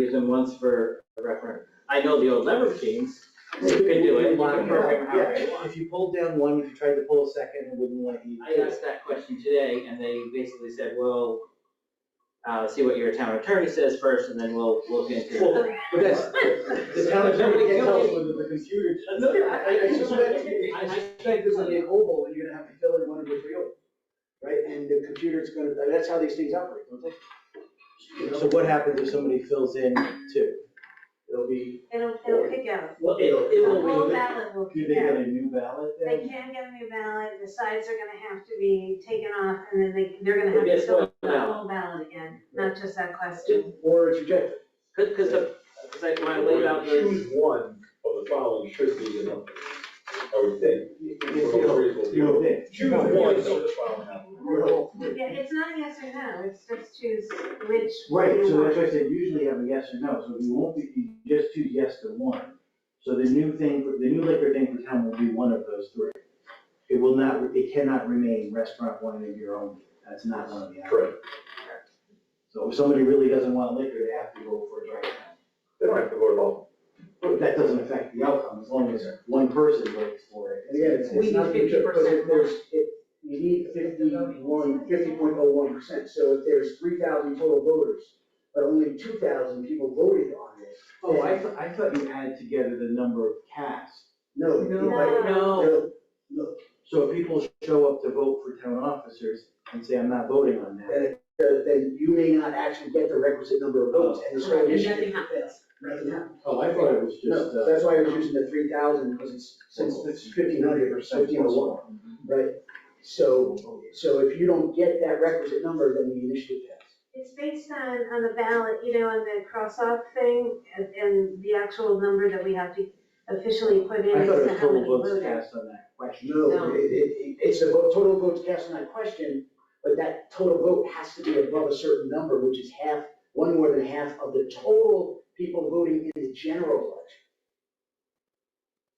years and once for a referendum. I know the old Lever Kings, you can do it, you can program however you want. If you pulled down one, if you tried to pull a second, it wouldn't let you. I asked that question today and they basically said, well, uh, see what your town attorney says first and then we'll look into it. Well, but that's, the town attorney can't tell us whether the computer. No, I- I- I- I suspect, I suspect there's gonna be a hole, and you're gonna have to fill in one of the three holes, right? And the computer's gonna, that's how these things operate, don't they? So what happens if somebody fills in two? It'll be, It'll, it'll kick out. Well, it, it The will whole be, ballot will do kick they get out. a new ballot They then? can't get a new ballot, the sides are gonna have to be taken off, and then they, they're gonna Well, have guess to fill what out the now? whole ballot again, not just that question. Or it's rejected? cause, cause, the- cause I, when I laid out the, Choose one of the following should be the number, I would think. It's, you know, you know, it's- Choose one of the following numbers. Yeah, it's not a yes or no, it's just choose which. Right, you so want. that's why I said usually have a yes or no, so we won't be, you just two yes to one. So the new thing, the new liquor thing for town will be one of those three. It will not, it cannot remain restaurant one of your own, that's not one of the others. Correct. So if somebody really doesn't want liquor, they have to go for a dry town. They don't have to vote at all. But that doesn't affect the outcome, as long as one person votes for it. Again, it's, We it's not need because 50% there's, it, you need fifty-one, fifty point oh one percent, so if there's three thousand total voters, but only two thousand people voted on this, Oh, I thought, I thought you add together the number of casts. no, No. nobody- no, no, no, So if people show up to vote for town officers and say, I'm not voting on that, then, it- uh, then you may not actually get the requisite number of votes, and the Right, sole and issue. nothing happens. Nothing happens. Oh, I thought it was just, No, uh, that's why I was using the three thousand, because it's, since it's fifteen hundred or fifteen oh one, right? So, so if you don't get that requisite number, then the initiative passes. It's based on, on the ballot, you know, on the cross-off thing, and, and the actual number that we have to officially put in I as thought it to was how many total votes voted. cast on that question. No, No. it, it, it- it's the vote, total votes cast on that question, but that total vote has to be above a certain number, which is half, one more than half of the total people voting in the general election.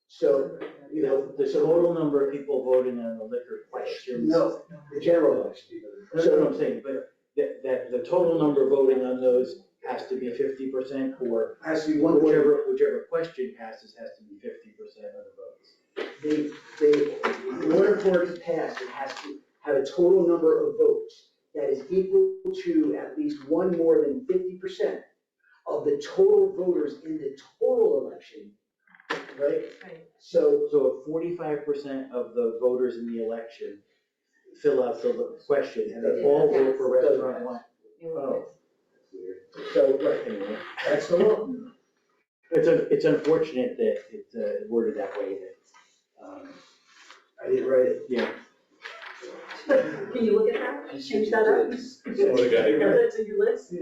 So, you know, The total number of people voting on the liquor questions. no, the general election. That's what I'm saying, but that, that, the total number voting on those has to be fifty percent or Has to be one more, whichever, whichever question passes has to be fifty percent of the votes. they, they, in order for it to pass, it has to have a total number of votes that is equal to at least one more than fifty percent of the total voters in the total election, right? Right. So, So if forty-five percent of the voters in the election fill out the question and they all vote for restaurant one. Oh, that's weird. so, right, Anyway. that's the law. It's, un- it's unfortunate that it's uh, worded that way, that, um, I didn't write it. yeah. Can you look at that, change that up? Add that to your list?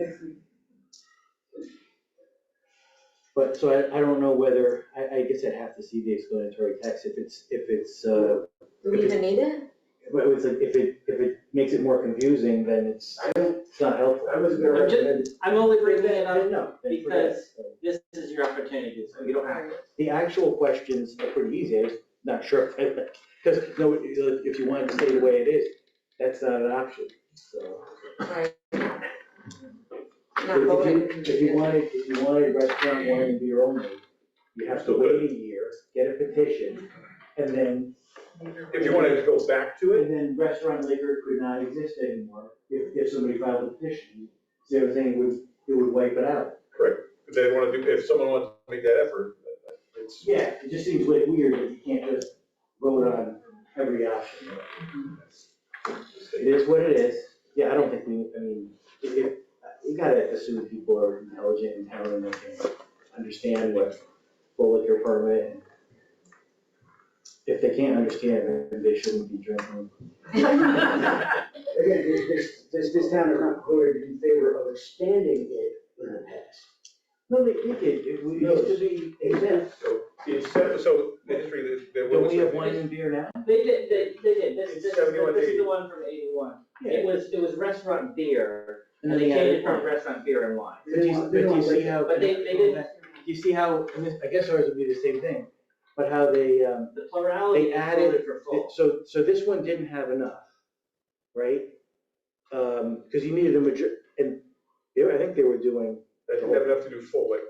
But, so I, I don't know whether, I, I guess I'd have to see the explanatory text if it's, if it's, uh, Do we even need it? but it's, like, if it, if it makes it more confusing, then it's, I don't, it's not helpful. I was gonna I'm just- recommend. I'm only bringing that up, No, then forget it. because this is your opportunity, so you don't have to. The actual questions are pretty easy, I'm just not sure, because, no, if you wanted to stay the way it is, that's not an option, so. Right. If Not voting. you, if you wanted, if you wanted restaurant wine and beer only, you have to wait a year, get a petition, and then, If you wanted to go back to it, and then restaurant liquor could not exist anymore if, if somebody filed a petition. So everything would, it would wipe it out. if they wanna do, if someone wants to make that effort, it's. Yeah, it just seems way weird that you can't just vote on every option. It is what it is. Yeah, I don't think we, I mean, if, if- you gotta assume people are intelligent and talented and can understand what full liquor permit. and If they can't understand, then they shouldn't be drinking. Again, this, this, this, this town is not voted in favor of expanding it in the past. No, they, they did. It we used to be exempt. It's, so, the history, that there Don't was. we have wine and beer now? They did, they, they did, this is, this is- 71, this is the 80. one from eighty-one. It was, it was restaurant beer, and they they changed it added from wine. restaurant beer and wine. But do you, but do you see how? But they, they did, You see how, and this- I guess ours would be the same thing, but how they, um, the plurality They added- voted for full. So, so this one didn't have enough, right? Um, cause you needed a major, and they were- I think they were doing, that you never have to do full, like,